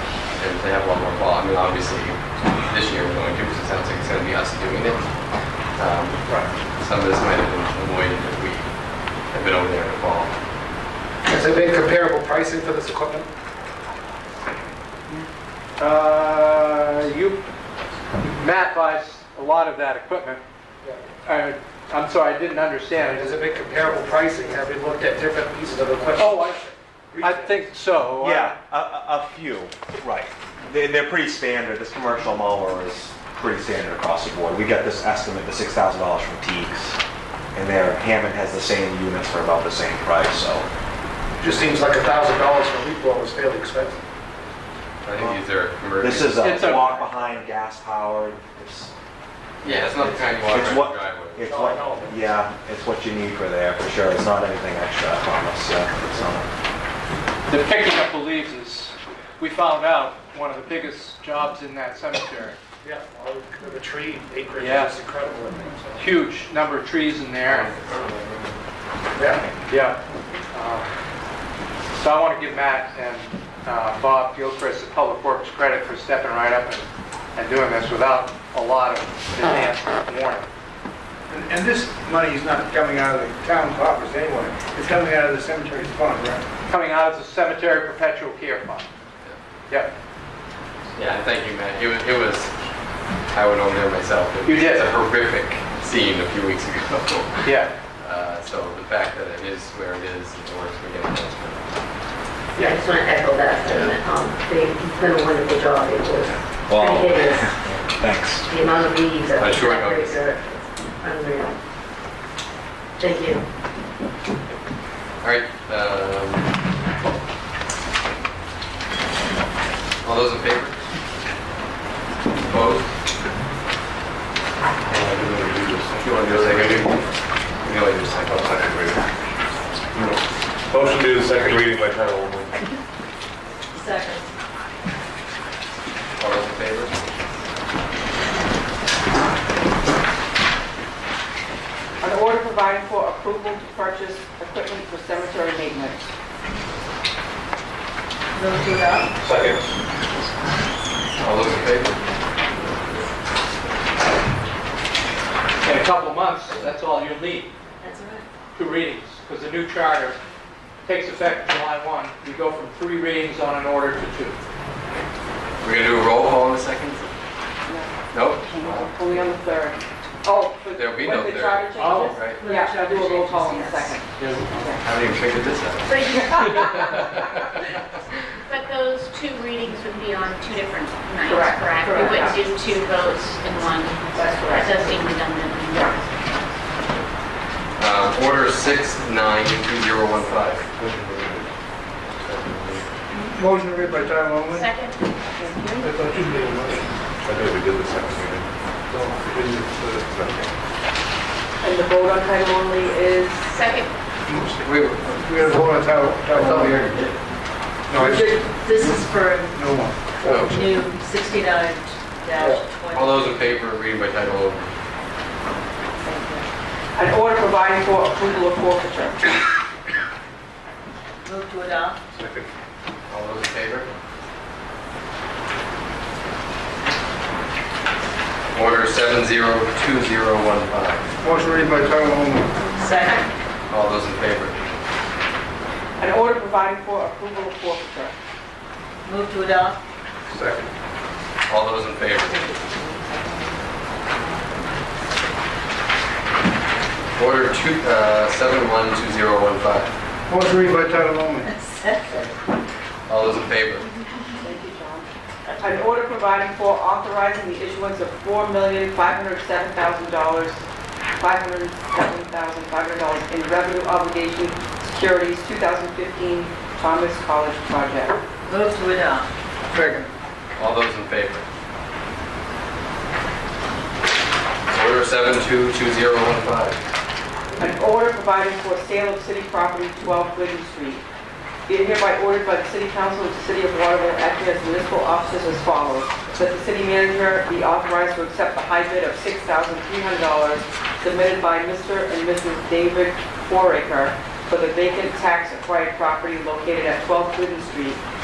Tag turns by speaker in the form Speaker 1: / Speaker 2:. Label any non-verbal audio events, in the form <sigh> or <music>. Speaker 1: to have one more fall. I mean, obviously, this year we're going to, because it sounds like it's going to be us doing it. Um, Some of this might have been avoided if we had been over there in the fall.
Speaker 2: Has there been comparable pricing for this equipment?
Speaker 3: Uh, You, Matt buys a lot of that equipment. Uh, I'm sorry, I didn't understand.
Speaker 2: Has there been comparable pricing? Have we looked at different pieces of equipment?
Speaker 3: Oh, I I think so.
Speaker 4: Yeah, a, a, a few, right. They, they're pretty standard, this commercial mower is pretty standard across the board. We got this estimate, the six thousand dollars from Teagues, and their Hammond has the same units for about the same price, so.
Speaker 2: Just seems like a thousand dollars for leaf blower is fairly expensive.
Speaker 1: I think these are emergency.
Speaker 4: This is a
Speaker 3: It's a-
Speaker 4: walk behind, gas powered, it's,
Speaker 1: Yeah, it's not the kind you walk
Speaker 4: it's
Speaker 1: around
Speaker 4: what,
Speaker 1: the driveway.
Speaker 4: it's
Speaker 2: Oh, I
Speaker 4: what,
Speaker 2: know, but-
Speaker 4: yeah, it's what you need for there, for sure, it's not anything extra, I promise, yeah, it's not.
Speaker 3: The picking up the leaves is, we found out, one of the biggest jobs in that cemetery.
Speaker 2: Yeah, all of the tree acreage
Speaker 3: Yeah.
Speaker 2: is incredible in there. so-
Speaker 3: Huge number of trees in there.
Speaker 2: Yeah,
Speaker 3: Yeah. Um, So I want to give Matt and uh, Bob Gilchrist at Public Works credit for stepping right up and and doing this without a lot of advance warning.
Speaker 5: And and this money is not coming out of the town coffers anyway. It's coming out of the cemetery's fund, right?
Speaker 3: Coming out of the cemetery perpetual care fund. Yep.
Speaker 1: Yeah, thank you, Matt. It was, it was, I went over there myself. It
Speaker 3: You
Speaker 1: was
Speaker 3: did.
Speaker 1: a horrific scene a few weeks <laughs> ago.
Speaker 3: Yeah.
Speaker 1: Uh, So the fact that it is where it is, it works, we get it.
Speaker 6: Yeah, I just want to echo that sentiment. Um, They've done a wonderful job. It was
Speaker 4: Wow.
Speaker 6: pretty hideous.
Speaker 4: Thanks.
Speaker 6: The amount of leaves that
Speaker 1: I
Speaker 6: were
Speaker 1: sure know.
Speaker 6: separated, uh, unreal. Thank you.
Speaker 1: All right. um, All those in favor? Opposed? If you want to do a second reading. You want to do a second.
Speaker 7: Motion to do the second reading by title only.
Speaker 6: Second.
Speaker 1: All those in favor?
Speaker 8: An order providing for approval to purchase equipment for cemetery maintenance.
Speaker 6: Move to adopt.
Speaker 7: Second.
Speaker 1: All those in favor?
Speaker 3: In a couple months, that's all you need,
Speaker 6: That's all right.
Speaker 3: two readings, because the new charter takes effect July 1. We go from three readings on an order to two.
Speaker 1: We're gonna do a roll call in a second? Nope?
Speaker 8: Are we on the third? Oh, for
Speaker 1: There'll be
Speaker 8: when
Speaker 1: no
Speaker 8: the
Speaker 1: third.
Speaker 8: charter changes?
Speaker 3: Oh,
Speaker 1: right.
Speaker 8: Yeah, I'll do a roll call in a second.
Speaker 1: I haven't even figured this out.
Speaker 9: <laughs> But those two readings would be on two different nights,
Speaker 8: Correct.
Speaker 9: correct? We
Speaker 8: Correct.
Speaker 9: wouldn't do two votes in one.
Speaker 8: That's correct.
Speaker 9: That seems redundant.
Speaker 1: Um, Order six nine two zero one five.
Speaker 5: Motion to read by title only.
Speaker 9: Second?
Speaker 5: I thought you made a motion.
Speaker 7: I think we did the second reading.
Speaker 5: No, I didn't.
Speaker 7: No.
Speaker 8: And the vote on title only is,
Speaker 9: Second,
Speaker 1: We,
Speaker 5: We had a vote on title,
Speaker 1: I
Speaker 5: title
Speaker 1: thought we
Speaker 5: only.
Speaker 1: already did.
Speaker 5: No, I did.
Speaker 6: This is for
Speaker 5: No one.
Speaker 1: Oh.
Speaker 6: new 69 20.
Speaker 1: All those in favor of reading by title only?
Speaker 8: an order providing for approval of forfeiture.
Speaker 6: Move to adopt.
Speaker 7: Second.
Speaker 1: All those in favor? Order seven zero two zero one five.
Speaker 5: Motion to read by title only.
Speaker 6: Second.
Speaker 1: All those in favor?
Speaker 8: An order providing for approval of forfeiture.
Speaker 6: Move to adopt.
Speaker 5: Second.
Speaker 1: All those in favor? Order two, uh, seven one two zero one five.
Speaker 5: Motion to read by title only.
Speaker 6: <laughs> Second.
Speaker 1: All those in favor?
Speaker 8: Thank you, John. An order providing for authorizing the issuance of four million, five hundred seven thousand dollars, five hundred seven thousand, five hundred dollars in revenue obligation securities, two thousand fifteen Thomas College project.
Speaker 6: Move to adopt.
Speaker 5: Second.
Speaker 1: All those in favor? Order seven two two zero one five.
Speaker 8: An order providing for sale of city property 12 Glidden Street. Be it hereby ordered by the City Council of the City of Waterville acting as municipal officers as follows. That the city manager be authorized to accept the high bid of $6,300 submitted by Mr. and Mrs. David Foraker for the vacant tax-acquired property located at 12 Glidden Street